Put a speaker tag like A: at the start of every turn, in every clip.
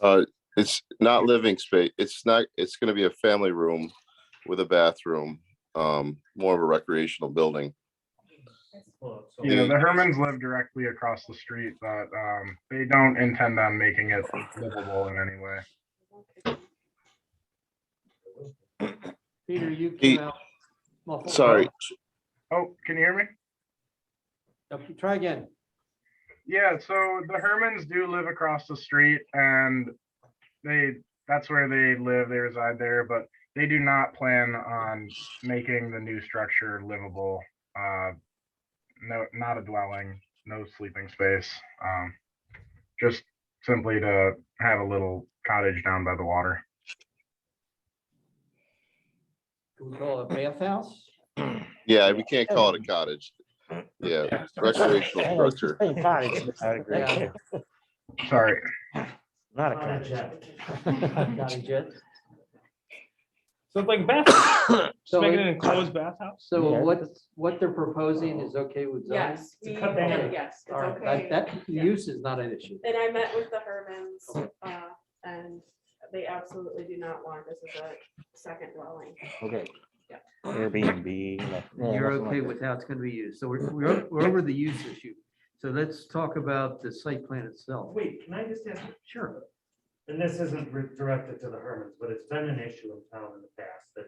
A: Uh, it's not living space. It's not, it's gonna be a family room with a bathroom, um, more of a recreational building.
B: You know, the Hermans live directly across the street, but um, they don't intend on making it livable in any way.
C: Peter, you
A: Pete,
C: came out. muffled.
A: Sorry,
B: Oh, can you hear me?
C: Yep, Try again.
B: Yeah, so the Hermans do live across the street and they, that's where they live, they reside there, but they do not plan on making the new structure livable. Uh, No, not a dwelling, no sleeping space. um, Just simply to have a little cottage down by the water.
C: Can we call it a bathhouse?
A: yeah, we can't call it a cottage. Yeah, recreational
D: Hey, it's
A: structure.
D: the same cottage, it's Not a great
C: Yeah.
D: care,
B: Sorry,
D: not a
C: Not a
D: cottage.
C: jet. Not a jet.
E: So it's like a bathhouse,
C: So
E: just make it
C: it-
E: an enclosed bathhouse.
C: So
D: Yeah.
C: what, what they're proposing is okay with zoning?
F: Yes, we,
E: cut down.
F: yeah, yes, it's
C: All right, that,
F: okay.
C: that
F: yeah.
C: use is not an issue.
F: And I met with the Hermans, uh, and they absolutely do not want this as a second dwelling.
D: Okay.
F: Yeah.
D: Airbnb. like- yeah,
C: You're
D: nothing like
C: okay
D: that.
C: with how it's gonna be used. So we're, we're, we're over the use issue. So let's talk about the site plan itself.
G: Wait, can I just ask,
C: Sure.
G: and this isn't re- directed to the Hermans, but it's been an issue in town in the past that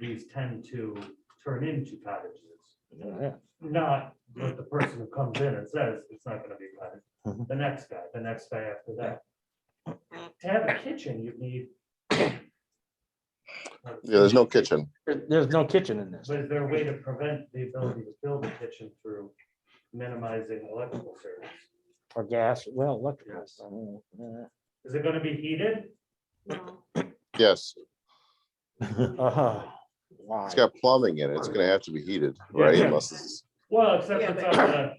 G: these tend to turn into cottages.
D: Yeah,
G: Not with the person who comes in and says it's not gonna be a cottage,
D: Mhm.
G: the next guy, the next guy after that. To have a kitchen, you need.
A: Yeah, there's no kitchen.
D: There- There's no kitchen in this.
G: But is there a way to prevent the ability to build a kitchen through minimizing electrical service?
D: Or gas, well, Uh, electrical.
G: Yes.
D: I mean, yeah.
G: Is it gonna be heated?
F: No,
A: Yes,
D: Uh-huh. Why?
A: it's got plumbing in it. It's gonna have to be heated, right? Unless it's,
G: Well, except
F: Yeah,
G: it's
F: but-
G: on the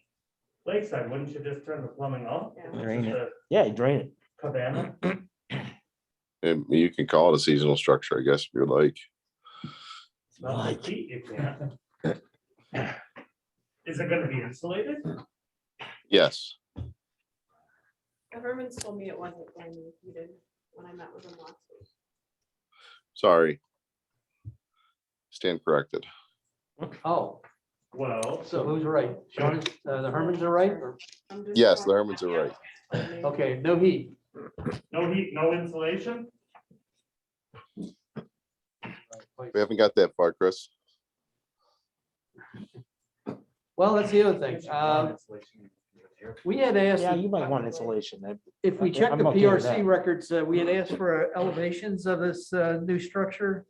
G: lakeside, wouldn't you just turn the plumbing off?
F: Yeah.
G: It's
D: Drain
G: just
D: it. Yeah, you drain it.
G: a Cabana,
A: and you can call it a seasonal structure, I guess, if you're like.
G: It's not like heat, you can. Is it gonna be insulated?
A: Yes,
F: the Hermans told me it wasn't going to be heated when I met with them last week.
A: sorry. Stand corrected.
C: Oh,
G: Well,
C: so who's right? Sean, is- uh, the Hermans are right? or-
F: I'm just
A: Yes, the
F: going-
A: Hermans are right.
C: Okay, no heat.
G: no heat, no insulation?
A: We haven't got that far, Chris.
C: Well, that's the other thing.
G: Kitchen,
C: Um,
G: insulation, here.
C: We had asked
D: Yeah,
C: the
D: you might want insulation. that-
C: If we
D: Okay,
C: check the
D: I'm okay with
C: PRC
D: that.
C: records, uh, we had asked for uh, elevations of this uh, new structure.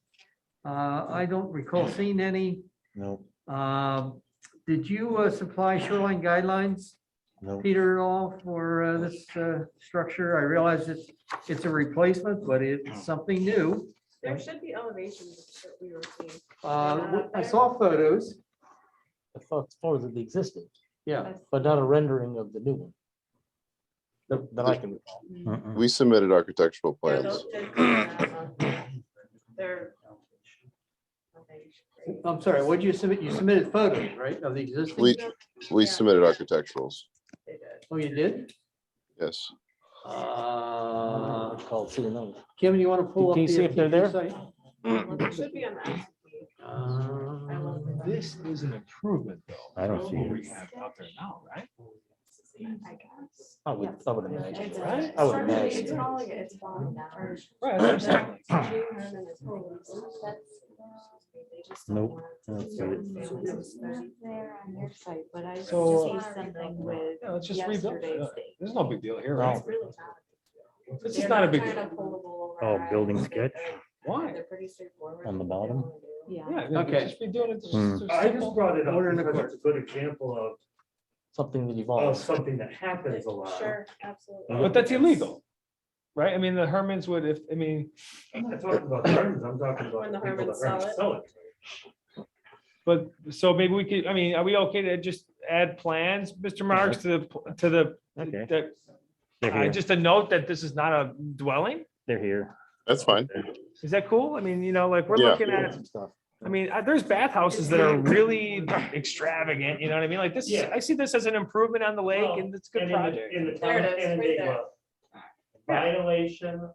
C: Uh, I don't recall seeing any.
D: No,
C: Um, Did you uh, supply shoreline guidelines,
D: no.
C: Peter, at all for uh, this uh, structure? I realize it's, it's a replacement, but it's something new.
F: There should be elevations that we were seeing.
C: Uh, I saw photos.
D: The fo- photos of the existing,
C: Yeah,
D: but not a rendering of the new one. That that I can recall.
C: Mm.
A: We submitted architectural
F: There are
A: plans.
F: those- there's that on there. They're- okay.
C: I'm sorry, what did you submit? You submitted photos, right, of the existing?
A: We, we
F: Yeah.
A: submitted architecturals.
F: They did.
C: Oh, you did?
A: Yes,
C: Uh,
D: It's called see another.
C: Kim, you want to pull up?
D: Can you
C: the
D: see if they're there?
C: site?
F: Well, they should be on the SUP. I
C: Uh,
F: love them.
E: This is an improvement though.
D: I don't see
E: What
D: it.
E: we have out there now, right?
F: I guess.
D: I would, I would imagine.
F: It's-
E: Right?
D: I would
F: structurally,
D: imagine.
F: It's falling, it's falling down.
E: Right.
F: They
E: that's what I'm saying.
F: just don't
D: Nope,
F: want
D: don't
F: to
D: see
F: do
D: it.
F: it. It's very-
H: There on your site, but I see
E: So- uh,
H: something with
E: Yeah, let's just rebuild it.
H: yesterday's
E: Uh,
H: date.
E: There's no big deal here, right?
F: it's really not.
E: This is
F: They're
E: not a big
F: kind
E: deal.
F: of foldable
D: Oh,
F: over
D: building
F: eyes.
D: sketch?
F: They're-
E: Why?
F: They're pretty straightforward.
D: On the
F: They
D: bottom?
F: only do-
H: Yeah,
E: Yeah.
C: Okay.
E: Just be doing it. just-
D: Hmm.
E: just
G: I just
E: simple.
G: brought it up
C: Order in the
G: because
C: court.
G: it's a good example
D: Something that
G: of, of
D: evolves.
G: something that happens a lot.
F: Sure, absolutely.
E: But that's illegal, right? I mean, the Hermans would, if, I mean,
G: I'm not talking about Hermans, I'm talking about.
F: When the
G: people that
F: Hermans sell it.
G: Sell it.
E: but, so maybe we could, I mean, are we okay to just add plans, Mr. Marks, to the, pl- to the?
D: Okay.
E: that-
D: They're
E: uh,
D: here.
E: Just a note that this is not a dwelling?
D: They're here.
A: that's fine.
E: Is that cool? I mean, you know, like, we're
A: Yeah.
E: looking at,
D: Some stuff.
E: I mean, uh, there's bathhouses that are really extravagant, you know what I mean? Like this, is-
G: Yeah.
E: I see this as an improvement on the lake and it's a good
G: And in the-
E: project.
G: In the
F: There
G: town
F: it
G: of
F: is, right
G: Canandaigua,
F: there.
G: violation